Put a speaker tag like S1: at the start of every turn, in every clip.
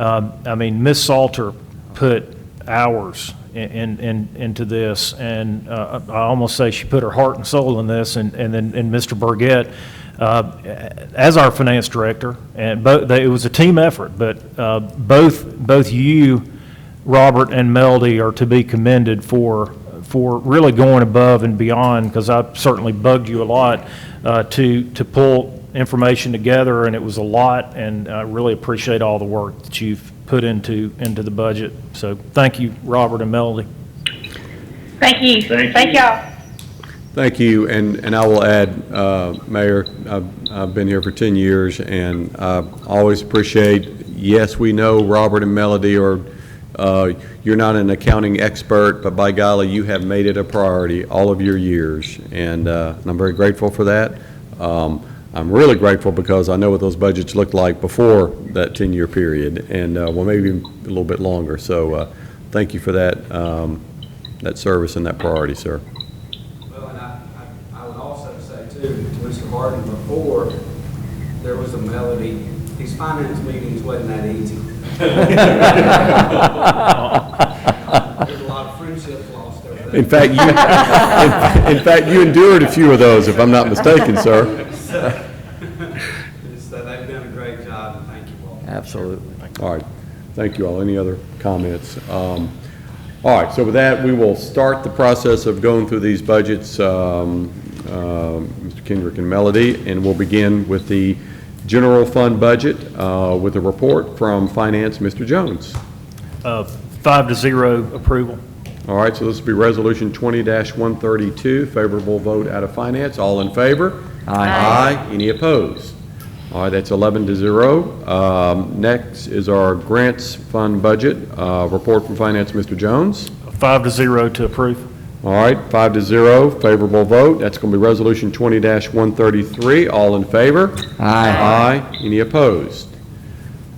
S1: Um, I mean, Ms. Salter put hours in- in, in, into this, and uh, I almost say she put her heart and soul in this, and, and then, and Mr. Burgett, uh, as our finance director, and both, it was a team effort, but uh, both, both you, Robert, and Melody are to be commended for, for really going above and beyond, because I certainly bugged you a lot, uh, to, to pull information together, and it was a lot, and I really appreciate all the work that you've put into, into the budget. So thank you, Robert and Melody.
S2: Thank you.
S3: Thank
S2: Thank
S3: you.
S2: y'all.
S4: Thank you, and, and I will add, uh, Mayor, I've, I've been here for 10 years, and I always appreciate, yes, we know Robert and Melody are, uh, you're not an accounting expert, but by golly, you have made it a priority all of your years, and uh, and I'm very grateful for that. Um, I'm really grateful because I know what those budgets looked like before that 10-year period, and, uh, well, maybe a little bit longer, so uh, thank you for that, um, that service and that priority, sir.
S5: Well, and I, I I would also say too, to Mr. Harden, before there was a melody, these finance meetings wasn't that easy. There's a lot of friendships lost over there.
S4: In fact, you, in in fact, you endured a few of those, if I'm not mistaken, sir.
S5: So they've done a great job, and thank you all.
S6: Absolutely.
S4: All right, thank you all. Any other comments? Um, All right, so with that, we will start the process of going through these budgets, um, um, Mr. Kendrick and Melody, and we'll begin with the general fund budget uh, with a report from Finance, Mr. Jones.
S1: Uh, Five to zero approval.
S4: All right, so this will be Resolution 20-132, favorable vote out of finance. All in favor?
S6: Aye.
S4: Any opposed? All right, that's 11 to 0. Um, Next is our grants fund budget. Uh, Report from Finance, Mr. Jones.
S1: Five to zero to approve.
S4: All right, 5 to 0, favorable vote. That's going to be Resolution 20-133. All in favor?
S6: Aye.
S4: Aye. Any opposed?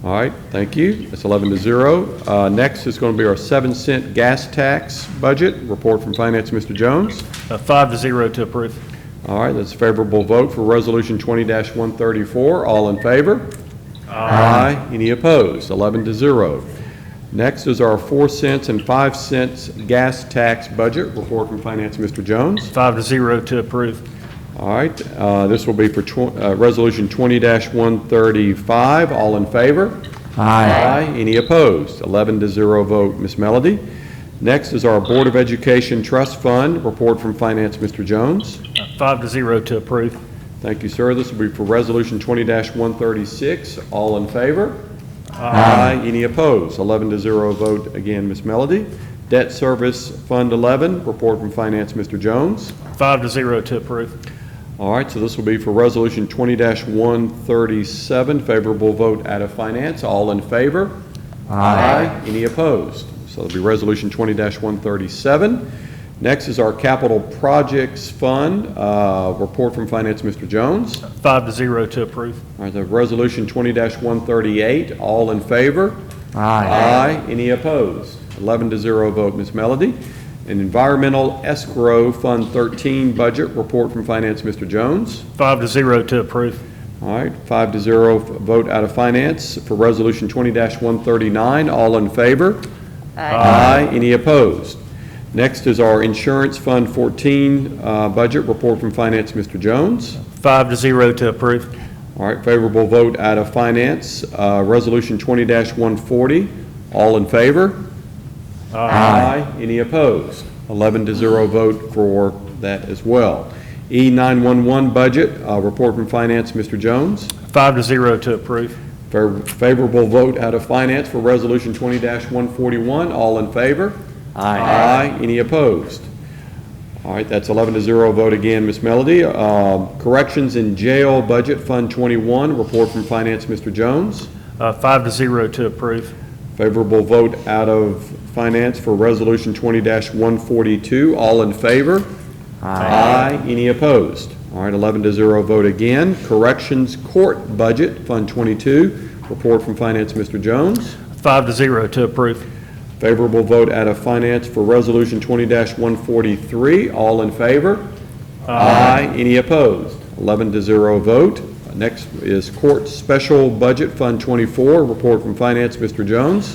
S4: All right, thank you. That's 11 to 0. Uh, Next is going to be our 7 cent gas tax budget. Report from Finance, Mr. Jones.
S1: Uh, Five to zero to approve.
S4: All right, that's a favorable vote for Resolution 20-134. All in favor? Aye. Any opposed? 11 to 0. Next is our 4 cents and 5 cents gas tax budget. Report from Finance, Mr. Jones.
S1: Five to zero to approve.
S4: All right, uh, this will be for tw- uh, Resolution 20-135. All in favor?
S6: Aye.
S4: Any opposed? 11 to 0 vote. Ms. Melody? Next is our Board of Education Trust Fund. Report from Finance, Mr. Jones.
S1: Uh, Five to zero to approve.
S4: Thank you, sir. This will be for Resolution 20-136. All in favor? Aye. Any opposed? 11 to 0 vote. Again, Ms. Melody. Debt Service Fund 11. Report from Finance, Mr. Jones.
S1: Five to zero to approve.
S4: All right, so this will be for Resolution 20-137, favorable vote out of finance. All in favor? Aye. Any opposed? So it'll be Resolution 20-137. Next is our Capital Projects Fund, uh, report from Finance, Mr. Jones. All
S1: Five to zero to approve.
S4: right, the Resolution 20-138, all in favor?
S6: Aye.
S4: Aye. Any opposed? 11 to 0 vote, Ms. Melody. And Environmental Escrow Fund 13 budget, report from Finance, Mr. Jones.
S1: Five to zero to approve.
S4: All right, five to zero, f- vote out of finance for Resolution 20-139. All in favor? Aye. Any opposed? Next is our Insurance Fund 14 uh, budget report from Finance, Mr. Jones.
S1: Five to zero to approve.
S4: All right, favorable vote out of finance, uh, Resolution 20-140. All in favor? Aye. Any opposed? 11 to zero vote for that as well. E E911 budget, uh, report from Finance, Mr. Jones.
S1: Five to zero to approve.
S4: Fair- Favorable vote out of finance for Resolution 20-141. All in favor? Aye. Any opposed? All right, that's 11 to 0 vote again, Ms. Melody. Um, Corrections in Jail Budget Fund 21, report from Finance, Mr. Jones.
S1: Uh, Five to zero to approve.
S4: Favorable vote out of finance for Resolution 20-142. All in favor? Aye. Any opposed? All right, 11 to 0 vote again. Corrections Court Budget Fund 22, report from Finance, Mr. Jones.
S1: Five to zero to approve.
S4: Favorable vote out of Finance for Resolution 20-143. All in favor? Aye. Any opposed? 11 to 0 vote. Next is Court Special Budget Fund 24, report from Finance, Mr. Jones.